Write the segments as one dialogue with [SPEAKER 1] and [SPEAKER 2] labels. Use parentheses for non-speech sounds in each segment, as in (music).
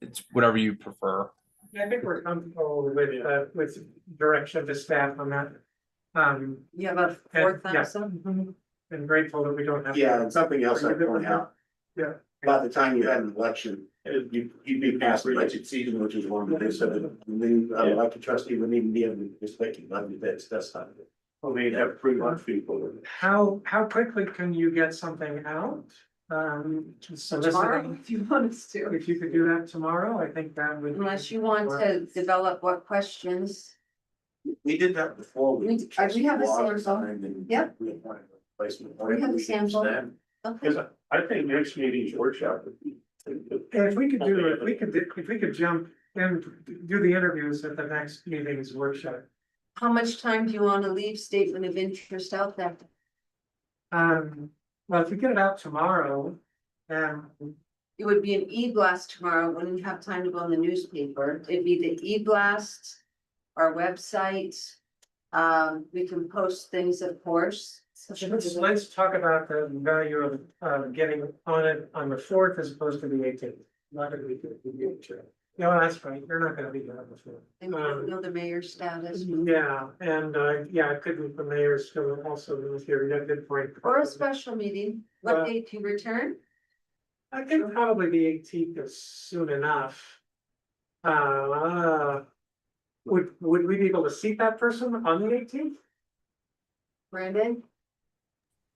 [SPEAKER 1] it's whatever you prefer.
[SPEAKER 2] I think we're comfortable with, uh, with direction to staff on that. Um,
[SPEAKER 3] You have a
[SPEAKER 2] Yeah,
[SPEAKER 3] four
[SPEAKER 2] yeah.
[SPEAKER 3] thousand?
[SPEAKER 2] and grateful that we don't have. to-
[SPEAKER 4] Yeah, and something else I'd point out.
[SPEAKER 2] Yeah.
[SPEAKER 4] By the time you had an election, you, you'd be past the budget season, which is one of the, so the, the, uh, elected trustee wouldn't even be able to just like, let me, that's, that's not. it. Well, they have pretty much people.
[SPEAKER 2] How, how quickly can you get something out? Um, just
[SPEAKER 3] Tomorrow,
[SPEAKER 2] soliciting,
[SPEAKER 3] if you want us to.
[SPEAKER 2] if you could do that tomorrow, I think that would.
[SPEAKER 3] Unless you want to develop what questions,
[SPEAKER 4] We did that before.
[SPEAKER 3] We- uh, we have a sample. Yep. We have a sample. okay,
[SPEAKER 4] I think next meeting's workshop. would be-
[SPEAKER 2] And If we could do, it, if we could, if we could jump and do the interviews at the next meeting's workshop.
[SPEAKER 3] how much time do you want to leave statement of interest out there?
[SPEAKER 2] Um, well, if we get it out tomorrow, um,
[SPEAKER 3] It would be an e-blast tomorrow, wouldn't you have time to go in the newspaper, it'd be the e-blast, our website. Um, we can post things, of course.
[SPEAKER 2] let's, let's talk about the value of, uh getting on it on the fourth as opposed to the eighteenth. Not that we could, we could try. No, that's right, you're not gonna be there on the fourth.
[SPEAKER 3] And we don't know the mayor's status,
[SPEAKER 2] Yeah, and, uh, yeah, it could be the mayor's, so also, if you're, you got a good point.
[SPEAKER 3] or a special meeting,
[SPEAKER 2] Uh,
[SPEAKER 3] what date do you return?
[SPEAKER 2] I think probably the eighteenth is soon enough. Uh, would, would we be able to seat that person on the eighteenth?
[SPEAKER 3] Brandon,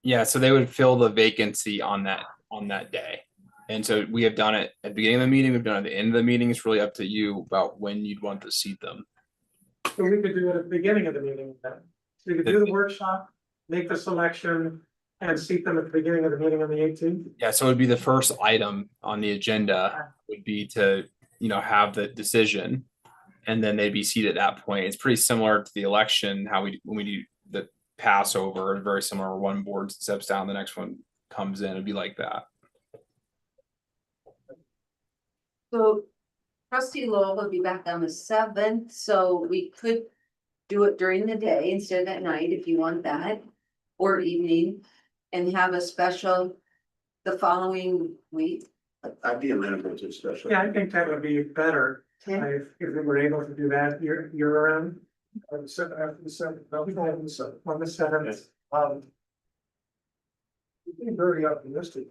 [SPEAKER 1] Yeah, so they would fill the vacancy on that, on that day. And so we have done it at the beginning of the meeting, we've done it at the end of the meeting. It's really up to you about when you'd want to seat them.
[SPEAKER 2] So we could do it at the beginning of the meeting then. So we could do the workshop, make the selection, and seat them at the beginning of the meeting on the eighteenth.
[SPEAKER 1] Yeah, so it would be the first item on the agenda would be to, you know, have the decision. And then they'd be seated at that point. It's pretty similar to the election, how we, when we do the Passover, very similar, where one board steps down, the next one comes in, it'd be like that.
[SPEAKER 3] so trustee Lowell will be back on the seventh, so we could. Do it during the day instead of at night if you want that, or evening, and have a special the following week.
[SPEAKER 4] I'd be amenable to a special.
[SPEAKER 2] Yeah, I think that would be better if, if we were able to do that year, year around. On the seventh, after the seventh, on the seventh. On the seventh. Um. You've been very optimistic.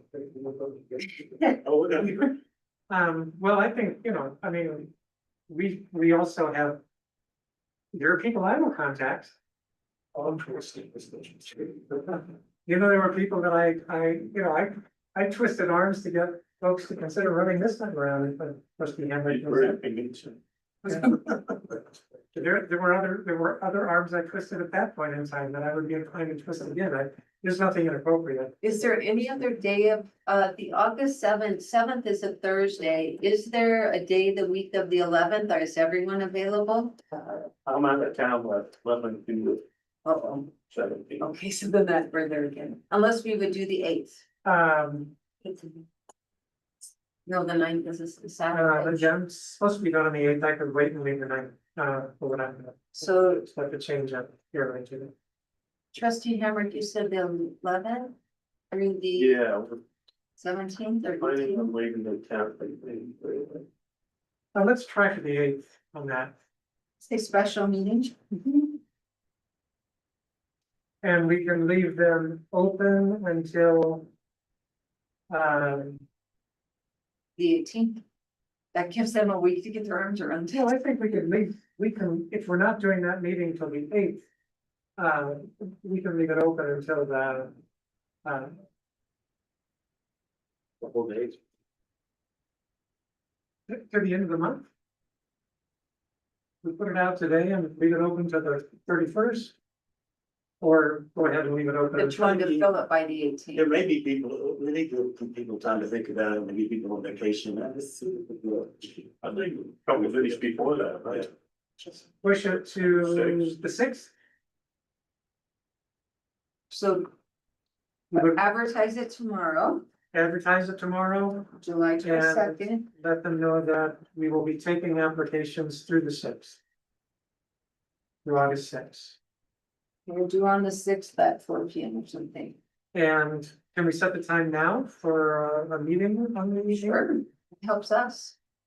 [SPEAKER 4] Oh, that'd be great.
[SPEAKER 2] Um, well, I think, you know, I mean, we, we also have. There are people I will contact. All twisting this vision (laughs) You know, there were people that I, I, you know, I, I twisted arms to get folks to consider running this time around, but must be
[SPEAKER 4] That'd
[SPEAKER 2] handling.
[SPEAKER 4] be great. I mean, it's-
[SPEAKER 2] (laughs) There, there were other, there were other arms I twisted at that point in time that I would be inclined to twist again. I, there's nothing inappropriate.
[SPEAKER 3] Is there any other day of, uh, the August seventh, seventh is a Thursday, is there a day the week of the eleventh, or is everyone available?
[SPEAKER 4] I'm out of town, but eleven to
[SPEAKER 3] Uh-oh,
[SPEAKER 4] seventeen.
[SPEAKER 3] okay, so then that, we're there again, unless we would do the eighth.
[SPEAKER 2] Um,
[SPEAKER 3] No, the ninth is a s-
[SPEAKER 2] uh, the
[SPEAKER 3] Saturday,
[SPEAKER 2] gem's supposed to be done on the eighth. I could wait and leave the night, uh, for what I'm.
[SPEAKER 3] so
[SPEAKER 2] It's like a change up here, right, Judy?
[SPEAKER 3] trustee Hammer, you said the eleventh, I mean, the
[SPEAKER 4] Yeah, we're
[SPEAKER 3] seventeenth or
[SPEAKER 4] planning on
[SPEAKER 3] eighteenth?
[SPEAKER 4] leaving the town. I think.
[SPEAKER 2] Uh, let's try for the eighth on that,
[SPEAKER 3] Say special meeting.
[SPEAKER 2] and we can leave them open until. Um,
[SPEAKER 3] The eighteenth, that gives them a week to get their arms around
[SPEAKER 2] no,
[SPEAKER 3] it,
[SPEAKER 2] I think we could leave, we can, if we're not doing that meeting till the eighth. Uh, we can leave it open until the, uh,
[SPEAKER 4] The whole day.
[SPEAKER 2] to the end of the month. We put it out today and leave it open to the thirty first. Or go ahead and leave it open.
[SPEAKER 3] but
[SPEAKER 2] until
[SPEAKER 3] trying to fill it by the eighteenth.
[SPEAKER 4] There may be people, we need to give people time to think about it, maybe people on vacation. I think a couple of days before that, right?
[SPEAKER 2] Push it to
[SPEAKER 4] Six.
[SPEAKER 2] the sixth.
[SPEAKER 3] So
[SPEAKER 2] We would
[SPEAKER 3] advertise it tomorrow,
[SPEAKER 2] advertise it tomorrow.
[SPEAKER 3] July twenty
[SPEAKER 2] Yeah.
[SPEAKER 3] second,
[SPEAKER 2] let them know that we will be taking applications through the sixth. Through August sixth,
[SPEAKER 3] we'll do on the sixth at four P M or something.
[SPEAKER 2] and can we set the time now for uh, a meeting on the meeting?
[SPEAKER 3] Helps us,